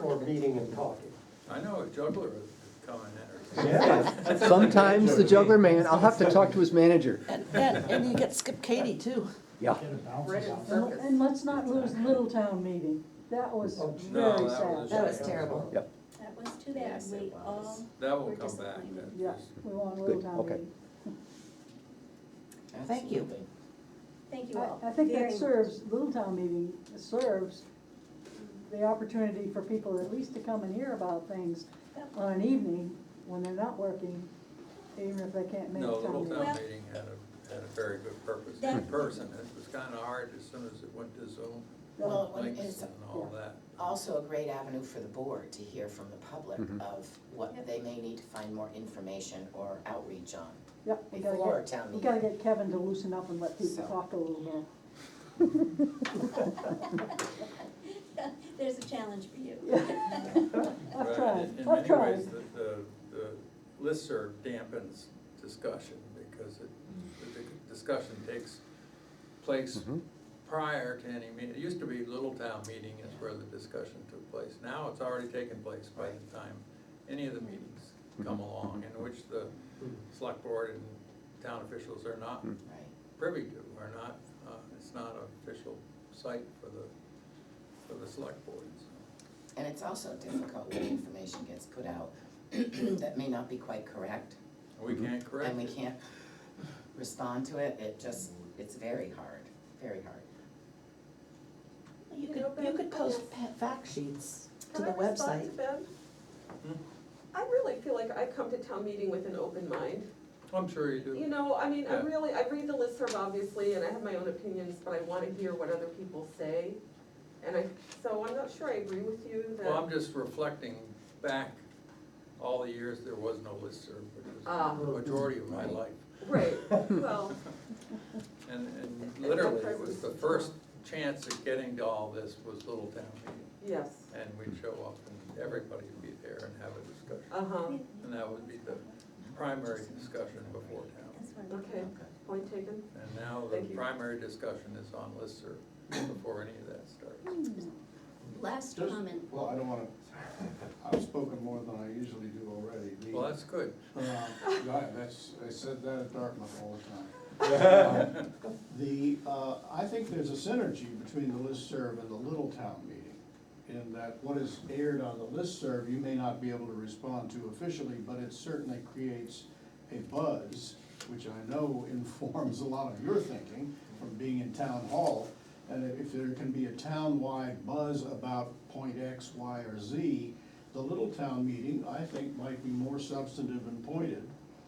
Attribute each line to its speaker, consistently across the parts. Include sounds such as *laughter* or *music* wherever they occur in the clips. Speaker 1: for meeting and talking.
Speaker 2: I know a juggler is coming in.
Speaker 1: Yeah.
Speaker 3: Sometimes the juggler man, I'll have to talk to his manager.
Speaker 4: And, and, and you get Skip Katie too.
Speaker 3: Yeah. *laughs*
Speaker 5: And and let's not lose Little Town meeting. That was
Speaker 1: Oh,
Speaker 2: no,
Speaker 5: very
Speaker 2: that was-
Speaker 5: sad.
Speaker 4: That was terrible.
Speaker 6: That was too bad,
Speaker 7: Yes,
Speaker 6: we
Speaker 7: it was.
Speaker 6: all,
Speaker 2: That will
Speaker 6: We're
Speaker 2: come back.
Speaker 6: disappointed.
Speaker 2: That
Speaker 5: Yeah,
Speaker 2: is-
Speaker 5: we want Little
Speaker 3: Good,
Speaker 5: Town
Speaker 3: okay.
Speaker 5: meeting.
Speaker 4: Thank you.
Speaker 7: Absolutely.
Speaker 6: thank you all.
Speaker 5: I, I think
Speaker 6: very
Speaker 5: that
Speaker 6: much.
Speaker 5: serves, Little Town meeting serves the opportunity for people at least to come and hear about things
Speaker 6: Yep.
Speaker 5: on an evening when they're not working, even if they can't make
Speaker 2: No,
Speaker 5: town
Speaker 2: Little
Speaker 5: meeting.
Speaker 2: Town
Speaker 6: Well-
Speaker 2: Meeting had a, had a very good purpose in
Speaker 6: That-
Speaker 2: person. It was kinda hard as soon as it went to Zoom,
Speaker 5: Yeah.
Speaker 7: Well, it
Speaker 2: links
Speaker 7: is
Speaker 2: and all that.
Speaker 7: also a great avenue for the board to hear from the public
Speaker 3: Mhm.
Speaker 7: of what
Speaker 6: Yep.
Speaker 7: they may need to find more information or outreach on
Speaker 5: Yep, we gotta
Speaker 7: before
Speaker 5: get,
Speaker 7: town
Speaker 5: we gotta
Speaker 7: meeting.
Speaker 5: get Kevin to loosen up and let people
Speaker 7: So.
Speaker 5: talk a little
Speaker 2: *laughs*
Speaker 5: more.
Speaker 6: *laughs*
Speaker 5: *laughs*
Speaker 6: There's a challenge for you.
Speaker 5: I've
Speaker 2: Right,
Speaker 5: tried,
Speaker 2: in- in
Speaker 5: I've
Speaker 2: many
Speaker 5: tried.
Speaker 2: ways, the- The, the listserv dampens discussion because it,
Speaker 5: Mm.
Speaker 2: the the discussion takes place
Speaker 3: Mhm.
Speaker 2: prior to any meeting. It used to be Little Town Meeting is where the discussion took place. Now it's already taken place by the time any of the meetings come along in which the select board and town officials are not
Speaker 7: Right.
Speaker 2: privy to, are not, uh, it's not an official site for the, for the select boards.
Speaker 7: And it's also difficult when information gets put out *clears throat* that may not be quite correct,
Speaker 2: We can't correct
Speaker 7: and we
Speaker 2: it.
Speaker 7: can't respond to it, it just, it's very hard, very hard.
Speaker 4: You could, you could post pa- fact sheets to the
Speaker 8: Can I respond
Speaker 4: website.
Speaker 8: to Ben?
Speaker 2: Hmm.
Speaker 8: I really feel like I come to town meeting with an open mind.
Speaker 2: Oh, I'm sure you do.
Speaker 8: You know, I mean, I
Speaker 2: Yeah.
Speaker 8: really, I read the listserv obviously, and I have my own opinions, but I wanna hear what other people say. And I, so I'm not sure I agree with you
Speaker 2: Well, I'm
Speaker 8: that,
Speaker 2: just reflecting back all the years there was no listserv, which
Speaker 8: Ah.
Speaker 2: was the majority of my life.
Speaker 8: right,
Speaker 2: *laughs*
Speaker 8: well,
Speaker 2: And, and
Speaker 8: And
Speaker 2: literally,
Speaker 8: that
Speaker 2: it was the
Speaker 8: person's-
Speaker 2: first chance at getting to all this was Little Town Meeting.
Speaker 8: yes,
Speaker 2: And we'd show up and everybody would be there and have a discussion.
Speaker 8: uh-huh,
Speaker 2: And that would be the primary discussion before town.
Speaker 6: That's where we-
Speaker 8: okay, point taken.
Speaker 2: And now
Speaker 8: Thank
Speaker 2: the
Speaker 8: you.
Speaker 2: primary discussion is on listserv before any of that starts.
Speaker 6: *laughs* Last
Speaker 9: Just-
Speaker 6: comment,
Speaker 9: Well, I don't wanna, I've spoken more than I usually do already. The-
Speaker 2: Well, that's good.
Speaker 9: Um, I- That's, I said that at Dartmouth all the time. Um, The, uh, I think there's a synergy between the listserv and the Little Town meeting, in that what is aired on the listserv, you may not be able to respond to officially, but it certainly creates a buzz, which I know *laughs* informs a lot of your thinking from being in town hall. And if there can be a town-wide buzz about point X, Y, or Z, the Little Town meeting, I think, might be more substantive and pointed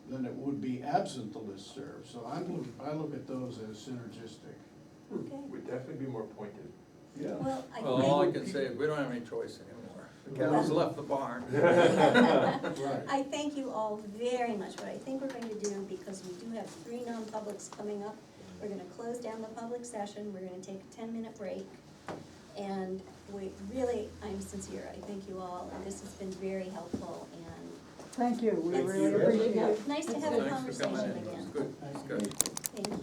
Speaker 9: than it would be absent the listserv. So I'm, look- I look at those as synergistic.
Speaker 6: okay.
Speaker 10: Would definitely be more pointed.
Speaker 9: Yeah.
Speaker 6: Well, I.
Speaker 2: Hmm. Well, all I can say is we don't have any choice anymore. The cat's left the barn.
Speaker 9: Right.
Speaker 6: I thank you all very much. What I think we're going to do, because we do have three non-publics coming up, we're gonna close down the public session, we're gonna take a ten-minute break. And we, really, I'm sincere, I thank you all, and this has been very helpful, and
Speaker 5: Thank you, we
Speaker 6: Thank
Speaker 5: really
Speaker 6: you.
Speaker 5: appreciate it.
Speaker 6: nice to have a
Speaker 2: Thanks for coming in.
Speaker 6: conversation
Speaker 2: It was
Speaker 6: again.
Speaker 2: good, it was good.
Speaker 6: Thank you.